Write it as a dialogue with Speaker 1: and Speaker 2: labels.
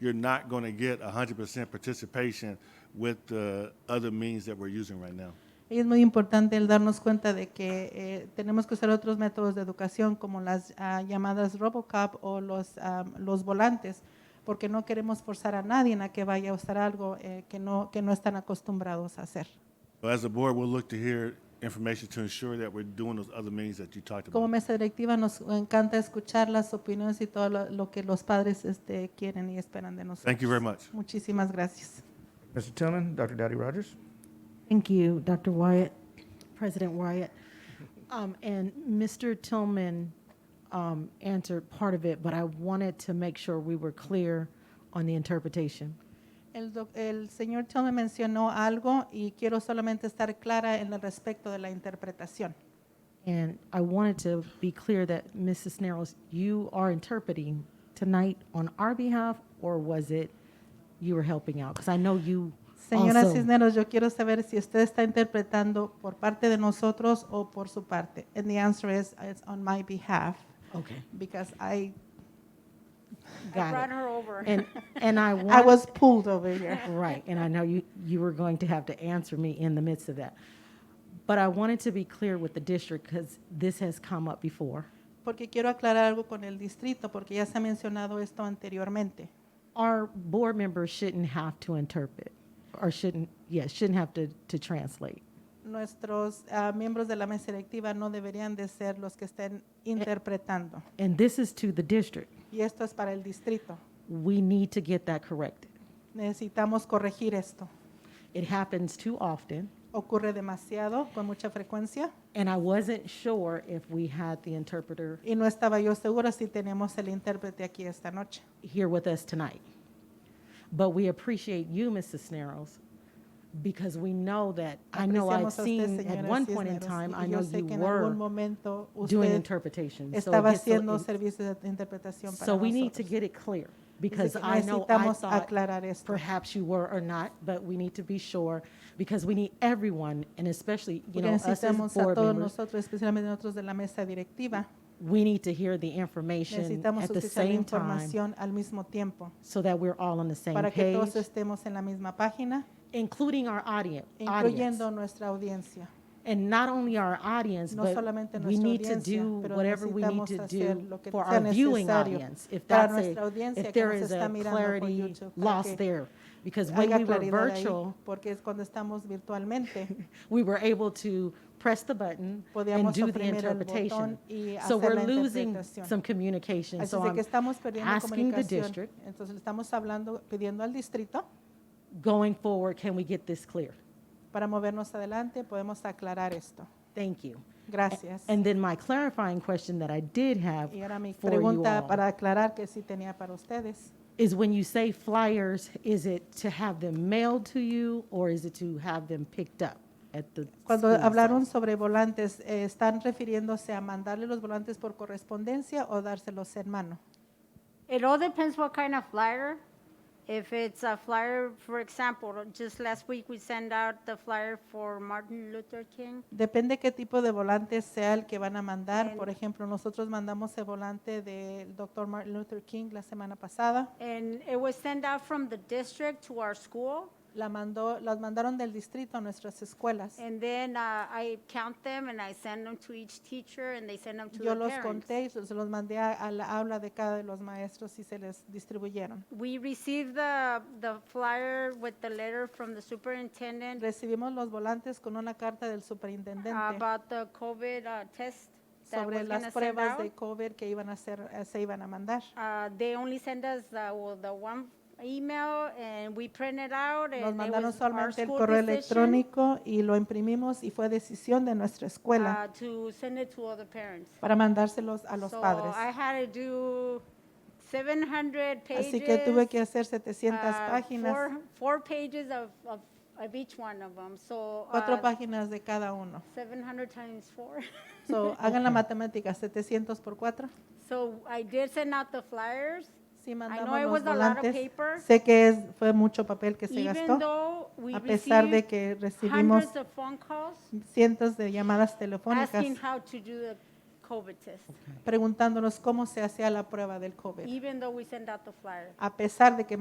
Speaker 1: you're not going to get 100% participation with the other means that we're using right now.
Speaker 2: Y es muy importante el darnos cuenta de que eh, tenemos que usar otros métodos de educación como las ah, llamadas Robocop o los, am, los volantes, porque no queremos forzar a nadie a que vaya a usar algo eh, que, no, que no están acostumbrados a hacer.
Speaker 1: So as a board, we'll look to hear information to ensure that we're doing those other means that you talked
Speaker 2: Como
Speaker 1: about.
Speaker 2: mesa directiva nos encanta escuchar las opiniones y todo lo, lo que los padres este, quieren y esperan de nosotros.
Speaker 1: Thank you very much.
Speaker 2: Muchísimas gracias.
Speaker 3: Mr. Tillman, Dr. Dowdy Rogers.
Speaker 4: Thank you, Dr. Wyatt, President Wyatt. Um, and Mr. Tillman um, answered part of it, but I wanted to make sure we were clear on the interpretation.
Speaker 2: El, doc- el señor Tillman mencionó algo y quiero solamente estar clara en el respecto de la interpretación.
Speaker 4: And I wanted to be clear that, Mrs. Snarles, you are interpreting tonight on our behalf, or was it you were helping out? Because I know you
Speaker 2: Señora
Speaker 4: also-
Speaker 2: Cisneros, yo quiero saber si usted está interpretando por parte de nosotros o por su parte. And the answer is it's on my behalf
Speaker 4: Okay,
Speaker 2: because I
Speaker 4: got
Speaker 5: I brought
Speaker 4: it.
Speaker 5: her over.
Speaker 4: And, and I want.
Speaker 2: I was pulled over here.
Speaker 4: Right, and I know you, you were going to have to answer me in the midst of that. But I wanted to be clear with the district because this has come up before.
Speaker 2: Porque quiero aclarar algo con el distrito porque ya se ha mencionado esto anteriormente.
Speaker 4: Our board members shouldn't have to interpret, or shouldn't, yeah, shouldn't have to, to translate.
Speaker 2: Nuestros ah, miembros de la mesa directiva no deberían de ser los que estén interpretando.
Speaker 4: And this is to the district.
Speaker 2: Y esto es para el distrito.
Speaker 4: We need to get that corrected.
Speaker 2: Necesitamos corregir esto.
Speaker 4: It happens too often,
Speaker 2: Ocurre demasiado, con mucha frecuencia,
Speaker 4: and I wasn't sure if we had the interpreter
Speaker 2: y no estaba yo segura si tenemos el intérprete aquí esta noche.
Speaker 4: here with us tonight. But we appreciate you, Mrs. Snarles, because we know that, I know I've
Speaker 2: Apreciamos a usted,
Speaker 4: seen at
Speaker 2: señora
Speaker 4: one point in
Speaker 2: Cisneros,
Speaker 4: time,
Speaker 2: y
Speaker 4: I
Speaker 2: yo
Speaker 4: know
Speaker 2: sé
Speaker 4: you
Speaker 2: que en algún
Speaker 4: were
Speaker 2: momento
Speaker 4: doing
Speaker 2: usted
Speaker 4: interpretation. so it
Speaker 2: estaba
Speaker 4: gets a little-
Speaker 2: haciendo servicios de interpretación para
Speaker 4: So we need to
Speaker 2: nosotros.
Speaker 4: get it clear,
Speaker 2: Dice
Speaker 4: because
Speaker 2: que
Speaker 4: I know I
Speaker 2: necesitamos
Speaker 4: thought
Speaker 2: aclarar esto.
Speaker 4: perhaps you were or not, but we need to be sure, because we need everyone, and especially, you
Speaker 2: Porque
Speaker 4: know, us as
Speaker 2: necesitamos a
Speaker 4: board
Speaker 2: todos
Speaker 4: members,
Speaker 2: nosotros, especialmente nosotros de la mesa directiva,
Speaker 4: we need to hear the information
Speaker 2: necesitamos
Speaker 4: at the
Speaker 2: utilizar la
Speaker 4: same time,
Speaker 2: información al mismo tiempo
Speaker 4: so that we're all on the same
Speaker 2: para que
Speaker 4: page,
Speaker 2: todos estemos en la misma página,
Speaker 4: including our audien- audience.
Speaker 2: incluyendo nuestra audiencia.
Speaker 4: And not only our audience,
Speaker 2: No
Speaker 4: but
Speaker 2: solamente nuestra
Speaker 4: we need to
Speaker 2: audiencia,
Speaker 4: do
Speaker 2: pero
Speaker 4: whatever we need
Speaker 2: necesitamos
Speaker 4: to
Speaker 2: hacer
Speaker 4: do
Speaker 2: lo que
Speaker 4: for
Speaker 2: sea
Speaker 4: our viewing
Speaker 2: necesario
Speaker 4: audience. If
Speaker 2: para
Speaker 4: that's
Speaker 2: nuestra
Speaker 4: a,
Speaker 2: audiencia que
Speaker 4: if there
Speaker 2: nos
Speaker 4: is
Speaker 2: está
Speaker 4: a
Speaker 2: mirando por
Speaker 4: clarity
Speaker 2: YouTube, para que
Speaker 4: lost there, because when
Speaker 2: Haga
Speaker 4: we were
Speaker 2: claridad ahí,
Speaker 4: virtual,
Speaker 2: porque es cuando estamos virtualmente.
Speaker 4: we were able to press the button and
Speaker 2: Podíamos
Speaker 4: do the
Speaker 2: oprimir el botón
Speaker 4: interpretation.
Speaker 2: y
Speaker 4: So
Speaker 2: hacer la
Speaker 4: we're losing
Speaker 2: interpretación.
Speaker 4: some communication.
Speaker 2: Así
Speaker 4: So
Speaker 2: es de que
Speaker 4: I'm
Speaker 2: estamos perdiendo
Speaker 4: asking the
Speaker 2: comunicación.
Speaker 4: district,
Speaker 2: Entonces le estamos hablando, pidiendo al distrito
Speaker 4: going forward, can we get this clear?
Speaker 2: para movernos adelante, podemos aclarar esto.
Speaker 4: Thank you.
Speaker 2: Gracias.
Speaker 4: And then my clarifying question that I did have
Speaker 2: Y ahora mi
Speaker 4: for you
Speaker 2: pregunta
Speaker 4: all.
Speaker 2: para aclarar que sí tenía para ustedes.
Speaker 4: is when you say flyers, is it to have them mailed to you or is it to have them picked up at the?
Speaker 2: Cuando
Speaker 4: school
Speaker 2: hablaron
Speaker 4: site?
Speaker 2: sobre volantes, eh, ¿están refiriéndose a mandarle los volantes por correspondencia o dárselos en mano?
Speaker 5: It all depends what kind of flyer. If it's a flyer, for example, just last week we sent out the flyer for Martin Luther King.
Speaker 2: Depende qué tipo de volante sea el que van a mandar.
Speaker 5: En-
Speaker 2: Por ejemplo, nosotros mandamos el volante del Dr. Martin Luther King la semana pasada.
Speaker 5: And it was sent out from the district to our school.
Speaker 2: La mandó, las mandaron del distrito a nuestras escuelas.
Speaker 5: And then uh, I count them and I send them to each teacher and they send them to
Speaker 2: Yo
Speaker 5: the
Speaker 2: los
Speaker 5: parents.
Speaker 2: conté y se los mandé a, a la aula de cada de los maestros y se les distribuyeron.
Speaker 5: We received the, the flyer with the letter from the superintendent
Speaker 2: Recibimos los volantes con una carta del superintendente
Speaker 5: about the COVID uh, test Ah, that
Speaker 2: sobre
Speaker 5: was going
Speaker 2: las
Speaker 5: to send
Speaker 2: pruebas
Speaker 5: out.
Speaker 2: de COVID que iban a hacer, eh, se iban a mandar.
Speaker 5: Uh, They only send us the, well, the one email and we print it out
Speaker 2: Nos
Speaker 5: and it
Speaker 2: mandaron
Speaker 5: was our
Speaker 2: solamente el
Speaker 5: school
Speaker 2: correo
Speaker 5: decision
Speaker 2: electrónico y lo imprimimos y fue decisión de nuestra escuela
Speaker 5: uh, to send it to other parents.
Speaker 2: para mandárselos a los
Speaker 5: So
Speaker 2: padres.
Speaker 5: I had to do 700 pages.
Speaker 2: Así que tuve que hacer 700
Speaker 5: uh,
Speaker 2: páginas,
Speaker 5: four- Four pages of, of, of each one of them, so. uh,
Speaker 2: cuatro páginas de cada uno.
Speaker 5: 700 times four.
Speaker 2: So, hagan la matemática, 700 por 4.
Speaker 5: So I did send out the flyers,
Speaker 2: Sí,
Speaker 5: know
Speaker 2: mandamos
Speaker 5: it
Speaker 2: los
Speaker 5: was a lot of
Speaker 2: volantes.
Speaker 5: paper.
Speaker 2: Sé que es, fue mucho papel que se
Speaker 5: even
Speaker 2: gastó,
Speaker 5: though we
Speaker 2: a pesar de
Speaker 5: received
Speaker 2: que recibimos
Speaker 5: hundreds of phone calls
Speaker 2: cientos de llamadas telefónicas
Speaker 5: asking how to do the COVID test,
Speaker 2: preguntándonos cómo se hacía la prueba del COVID.
Speaker 5: even though we sent out the flyers.
Speaker 2: A pesar de que